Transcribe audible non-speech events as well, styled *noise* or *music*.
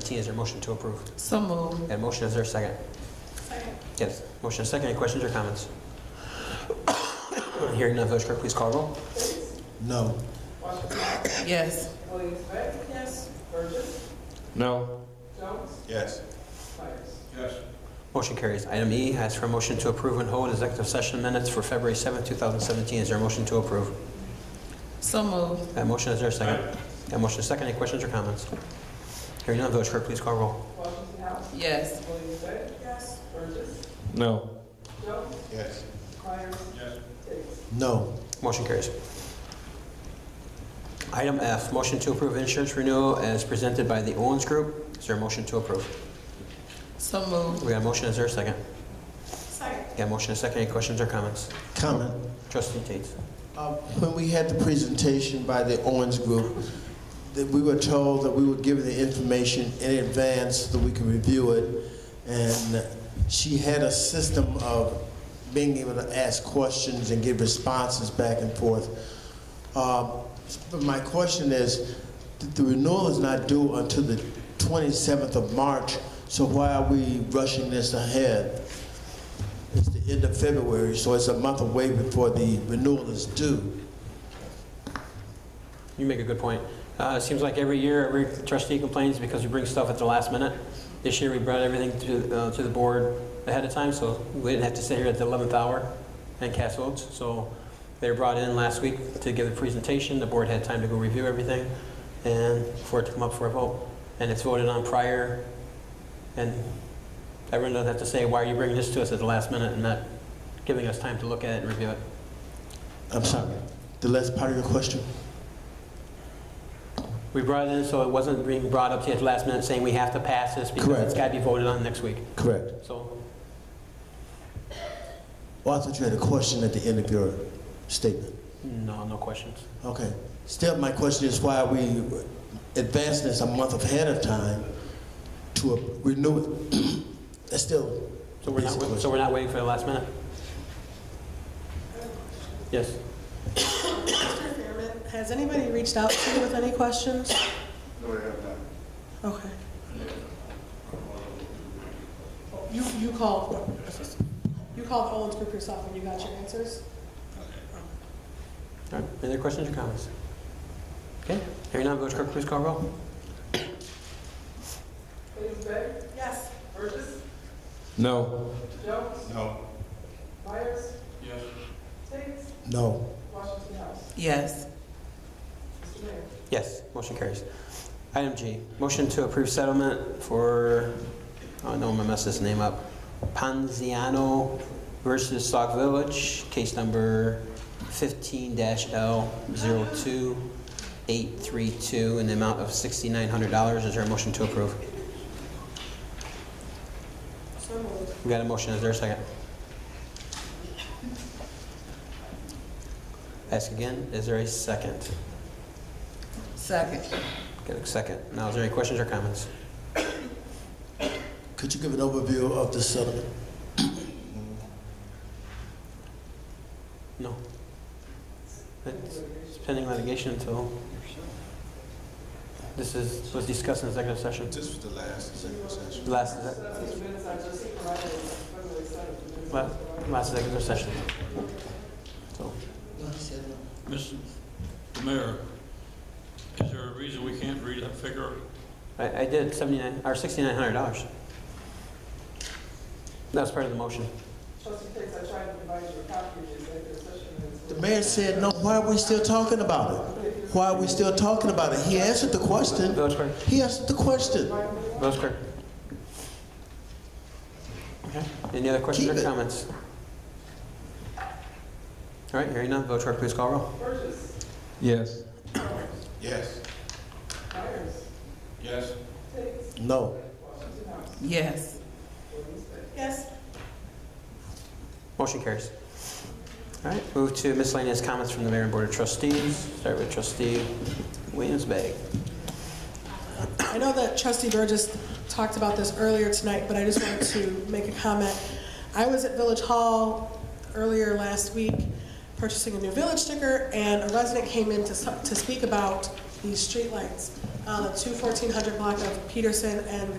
T, is there a motion to approve? So moved. And motion, is there a second? Second. Yes, motion and second, any questions or comments? *coughs* Hearing none, Village Clerk, please call the roll. No. Yes. Yes. Burgess. No. Jones. Yes. Myers. Motion carries. Item E, ask for a motion to approve and hold executive session minutes for February 7th, 2017. Is there a motion to approve? So moved. That motion, is there a second? That motion is second, any questions or comments? Hearing none, Village Clerk, please call roll. Washington House. Yes. Williams-Bright. Yes. Burgess. No. Jones. Yes. Myers. Yes. Davis. No. Motion carries. Item F, motion to approve insurance renewal as presented by the Owens Group. Is there a motion to approve? So moved. We got a motion, is there a second? Second. Yeah, motion and second. Any questions or comments? Comment. Trustee Tate. Uh, When we had the presentation by the Owens Group, that we were told that we were given the information in advance so that we could review it. And she had a system of being able to ask questions and give responses back and forth. Uh, But my question is, th- the renewal is not due until the 27th of March, so why are we rushing this ahead? It's the end of February, so it's a month away before the renewal is due. You make a good point. Uh, it seems like every year, every trustee complains because we bring stuff at the last minute. This year, we brought everything to, uh, to the board ahead of time, so we didn't have to sit here at the 11th hour and cast votes. So they were brought in last week to give the presentation. The board had time to go review everything and for it to come up for a vote. And it's voted on prior, and everyone doesn't have to say, why are you bringing this to us at the last minute and not giving us time to look at it and review it? I'm sorry, the last part of your question? We brought it in, so it wasn't being brought up to you at the last minute saying we have to pass this because Correct. it's got to be voted on next week. Correct. So, Well, Oh, I thought you had a question at the end of your statement. no, no questions. Okay. Still, my question is why are we advancing this a month ahead of time to a- renew *clears throat* it? That's still So we're not, Basic wait- so we're not waiting for the last minute? Yes. Mr. Fairman, has anybody reached out to you with any questions? No, I have not. Okay. You, you called, you called Owens Group yourself and you got your answers? All right, any other questions or comments? Okay, hearing none, Village Clerk, please call roll. Williams-Bright. Yes. Burgess. No. Jones. No. Myers. Yes. Davis. No. Washington House. Yes. Mr. Mayor. Yes, motion carries. Item G, motion to approve settlement for, oh, I know I'm gonna mess this name up, Panziano versus Sauk Village, case number 15-L02832, in the amount of $6,900. Is there a motion to approve? So moved. We got a motion, is there a second? Ask again, is there a second? Second. Get a second. Now, is there any questions or comments? Could you give an overview of the settlement? No. It's it's pending litigation until, this is, was discussed in executive session. This was the last executive session. Last, last, last executive session. So, Mr. Mayor, is there a reason we can't read that figure? I, I did seventy-nine, or sixty-nine hundred dollars. That was part of the motion. Trustee Pitts, I tried to provide you a copy of the executive session minutes. The mayor said, no, why are we still talking about it? Why are we still talking about it? He answered the question. Village clerk, He answered the question. village clerk. Okay, any other questions Keep or it. comments? All right, hearing none, village clerk, please call roll. Burgess, Yes. Yes. Myers, Yes. Pitts, No. Washington House. Yes. Yes. Motion carries. All right, move to miscellaneous comments from the mayor and board of trustees. Start with trustee Williams-Bag. I know that trustee Burgess talked about this earlier tonight, but I just wanted to make a comment. I was at Village Hall earlier last week purchasing a new village sticker, and a resident came in to, s- to speak about these streetlights. uh, two 1400 block of Peterson and